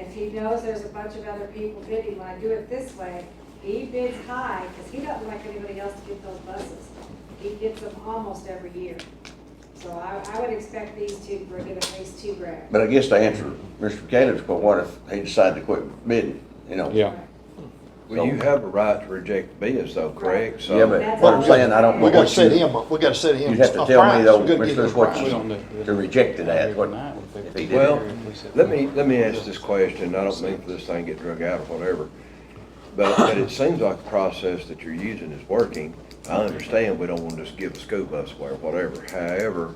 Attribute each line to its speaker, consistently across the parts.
Speaker 1: because he knows there's a bunch of other people bidding, when I do it this way, he bids high, because he doesn't like anybody else to get those buses. He gets them almost every year. So I, I would expect these two, we're gonna face two grants.
Speaker 2: But I guess to answer Mr. Caleb's, but what if he decided to quit bidding, you know?
Speaker 3: Yeah.
Speaker 4: Well, you have a right to reject bids though, correct? So-
Speaker 2: Yeah, but what I'm saying, I don't know
Speaker 5: We gotta
Speaker 2: what
Speaker 5: set
Speaker 2: you,
Speaker 5: him up, we gotta set him.
Speaker 2: you'd have
Speaker 5: a
Speaker 2: to tell me
Speaker 5: price.
Speaker 2: though,
Speaker 5: We gotta give him a
Speaker 2: Mr. what
Speaker 5: price.
Speaker 3: We don't
Speaker 2: you,
Speaker 3: know.
Speaker 2: to reject it at, what, if he did.
Speaker 4: Well, let me, let me ask this question, I don't mean for this thing to get drug out or whatever, but, but it seems like the process that you're using is working. I understand we don't want to just give a school bus away or whatever, however,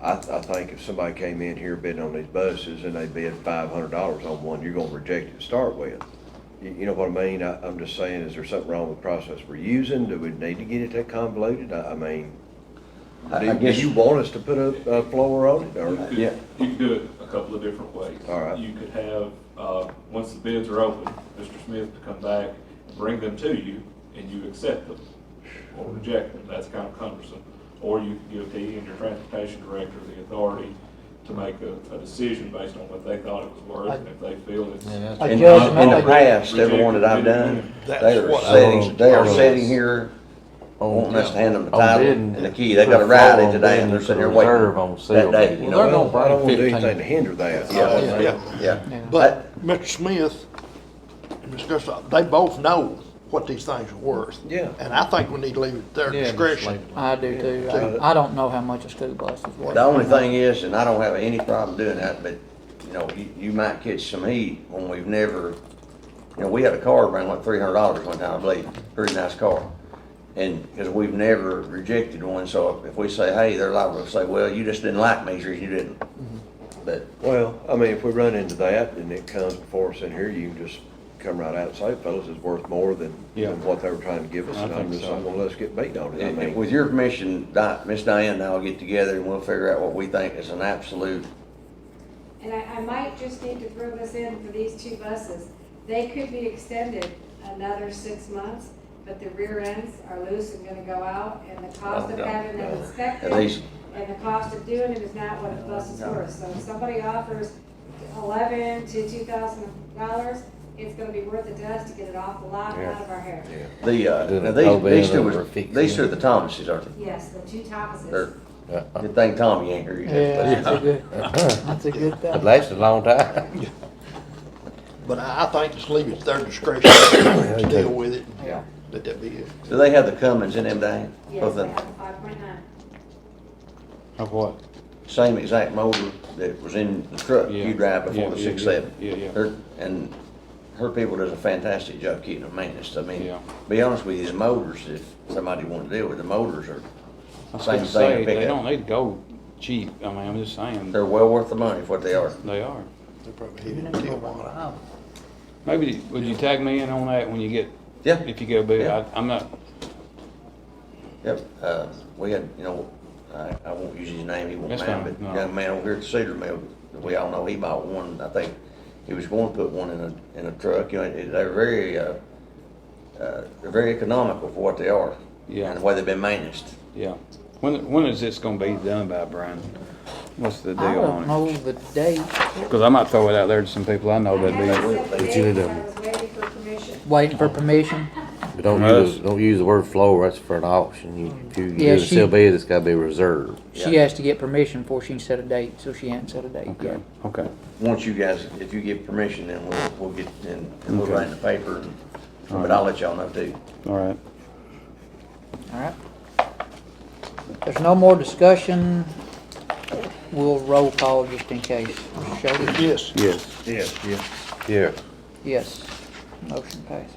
Speaker 4: I, I think if somebody came in here bidding on these buses and they bid five hundred dollars on one, you're gonna reject it to start with. You, you know what I mean, I, I'm just saying, is there something wrong with the process we're using, do we need to get it that convoluted, I, I mean,
Speaker 2: I- I
Speaker 4: do do
Speaker 2: guess-
Speaker 4: you want us to put a, a floor on it, or?
Speaker 6: You could-
Speaker 2: Yeah.
Speaker 6: You could do it a couple of different ways.
Speaker 4: All right.
Speaker 6: You could have, uh, once the bids are open, Mr. Smith to come back, and bring them to you, and you accept them or reject them, that's kind of cumbersome. Or you could give DE and your transportation director the authority to make a, a decision based on what they thought it was worth, and if they feel it's.
Speaker 5: I
Speaker 2: In, in
Speaker 5: judge him
Speaker 2: the
Speaker 5: like-
Speaker 2: past, everyone that I've done, they
Speaker 5: That's
Speaker 2: are
Speaker 5: what I
Speaker 2: sitting, they are
Speaker 5: was-
Speaker 2: sitting here wanting us to hand them the
Speaker 7: On
Speaker 2: title
Speaker 7: bidding,
Speaker 2: and the key. They got a ride it today and they're sitting here waiting.
Speaker 7: Reserve on sale.
Speaker 2: That day, you
Speaker 4: Well, I
Speaker 2: know,
Speaker 4: don't
Speaker 7: They're gonna
Speaker 4: want to do
Speaker 7: bring
Speaker 4: anything to
Speaker 7: 15.
Speaker 4: hinder that. Uh,
Speaker 5: Yeah, yeah.
Speaker 2: yeah.
Speaker 5: But Mr. Smith, and Mr. Gustaf, they both know what these things are worth.
Speaker 4: Yeah.
Speaker 5: And I think we need to leave it to their discretion.
Speaker 8: I do too. I, I don't know how much a school bus is worth.
Speaker 2: The only thing is, and I don't have any problem doing that, but, you know, you, you might catch some heat when we've never, you know, we had a car around like three hundred dollars one time, I believe, pretty nice car. And, cause we've never rejected one, so if we say, hey, they're liable to say, well, you just didn't like me, so you didn't.
Speaker 8: Mm-hmm.
Speaker 2: But
Speaker 4: Well, I mean, if we run into that and it comes before us in here, you can just come right out and say, fellas, it's worth more than,
Speaker 3: Yeah.
Speaker 4: than what they were trying to give us.
Speaker 3: I
Speaker 4: And I'm
Speaker 3: think
Speaker 4: just
Speaker 3: so.
Speaker 4: not gonna let us get beat on it. I
Speaker 2: And- and
Speaker 4: mean,
Speaker 2: With your permission, Di- Miss Diane and I'll get together and we'll figure out what we think is an absolute,
Speaker 1: And I, I might just need to throw this in for these two buses. They could be extended another six months, but the rear ends are loose and gonna go out, and the cost of
Speaker 2: Oh, no,
Speaker 1: having them
Speaker 2: at
Speaker 1: inspected,
Speaker 2: least,
Speaker 1: and the cost of doing it is not what a bus is worth. So if somebody offers eleven to two thousand dollars, it's gonna be worth it to us to get it off the lot and out of our hair.
Speaker 4: yeah.
Speaker 2: the, uh,
Speaker 7: Did a
Speaker 2: now these, these two
Speaker 7: Tobin
Speaker 2: was,
Speaker 7: or fix
Speaker 2: these two are
Speaker 7: it?
Speaker 2: the Thomases, aren't they?
Speaker 1: Yes, the two
Speaker 2: They're,
Speaker 1: Thomases.
Speaker 2: good thing Tommy ain't here. you
Speaker 8: Yeah,
Speaker 2: know.
Speaker 8: that's a good, that's a good
Speaker 7: It
Speaker 8: thing.
Speaker 7: lasted Uh-huh. a long time.
Speaker 5: But I, I think just leave it to their discretion to deal with it.
Speaker 2: Yeah.
Speaker 5: Let that be it.
Speaker 2: Do they have the Cummins in them, Diane?
Speaker 1: Yes,
Speaker 2: Both
Speaker 1: they
Speaker 2: of
Speaker 1: have
Speaker 2: them,
Speaker 1: a five point nine.
Speaker 3: Of what?
Speaker 2: same exact motor that was in the truck
Speaker 3: Yeah.
Speaker 2: you drive before the
Speaker 3: Yeah, yeah,
Speaker 2: six seven.
Speaker 3: yeah, yeah, yeah.
Speaker 2: Her, and her people does a fantastic job keeping them maintenance. I mean,
Speaker 3: Yeah.
Speaker 2: be honest with you, the motors, if somebody wanted to deal with, the motors are,
Speaker 3: I was
Speaker 2: Same thing,
Speaker 3: gonna say,
Speaker 2: pick
Speaker 3: they
Speaker 2: up.
Speaker 3: don't need to go cheap. I mean, I'm just saying,
Speaker 2: they're well worth the money for what they are.
Speaker 3: they are.
Speaker 5: They probably hit it till one.
Speaker 3: Maybe, would you tag me in on that when you get,
Speaker 2: Yeah.
Speaker 3: if you go bid?
Speaker 2: Yeah.
Speaker 3: I, I'm not,
Speaker 2: Yep, uh, we had, you know, I, I won't use his name, he won't
Speaker 3: That's
Speaker 2: mind,
Speaker 3: fine,
Speaker 2: but
Speaker 3: no.
Speaker 2: young man over here at Cedar Mill, we all know he bought one, I think, he was going to put one in a, in a truck, you know, it- they're very, uh, uh, they're very economical for what they are.
Speaker 3: Yeah.
Speaker 2: And the way they've been managed.
Speaker 3: yeah. When, when is this gonna be done by, Brian? What's the deal
Speaker 8: I don't
Speaker 3: on it?
Speaker 8: know the date.
Speaker 3: Cause I might throw it out there to some people I know
Speaker 1: I
Speaker 3: that'd
Speaker 1: had
Speaker 3: be.
Speaker 1: it set the
Speaker 7: But you
Speaker 1: date
Speaker 7: need to-
Speaker 1: because I was waiting for permission.
Speaker 8: Waiting for permission.
Speaker 7: But don't
Speaker 3: Well,
Speaker 7: use,
Speaker 3: that's-
Speaker 7: don't use the word floor, that's for an auction. You, if you
Speaker 8: Yeah,
Speaker 7: do a
Speaker 8: she-
Speaker 7: sale bid, it's gotta be reserved.
Speaker 8: She has to get permission before she can set a date, so she hasn't set a date
Speaker 3: Okay,
Speaker 8: yet.
Speaker 3: okay.
Speaker 2: Once you guys, if you give permission, then we'll, we'll get, and and we'll
Speaker 3: Okay.
Speaker 2: write in the paper, and- but I'll let y'all know too.
Speaker 3: All right.
Speaker 8: All right. If There's no more discussion. We'll roll call just in case. Mr. Shady?
Speaker 5: Yes,
Speaker 3: Yes.
Speaker 4: Yes.
Speaker 7: Yeah.
Speaker 8: Yes. Motion passes.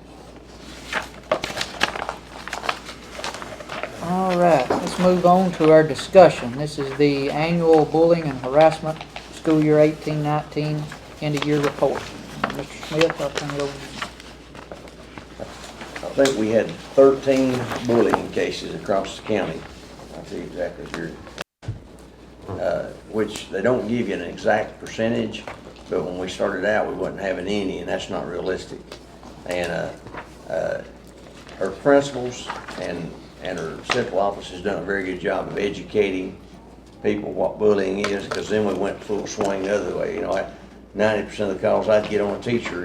Speaker 8: All right, let's move on to our discussion. This is the annual bullying and harassment, school year eighteen nineteen, end of year report. Mr. Smith, I'll turn it over to you.
Speaker 2: I think we had thirteen bullying cases across the county. I'll tell you exactly here. Uh, Which they don't give you an exact percentage, but when we started out, we wasn't having any, and that's not realistic. And, uh, uh, her principals and, and her central office has done a very good job of educating people what bullying is, because then we went full swing the other way, you know. I- ninety percent of the calls I'd get on a teacher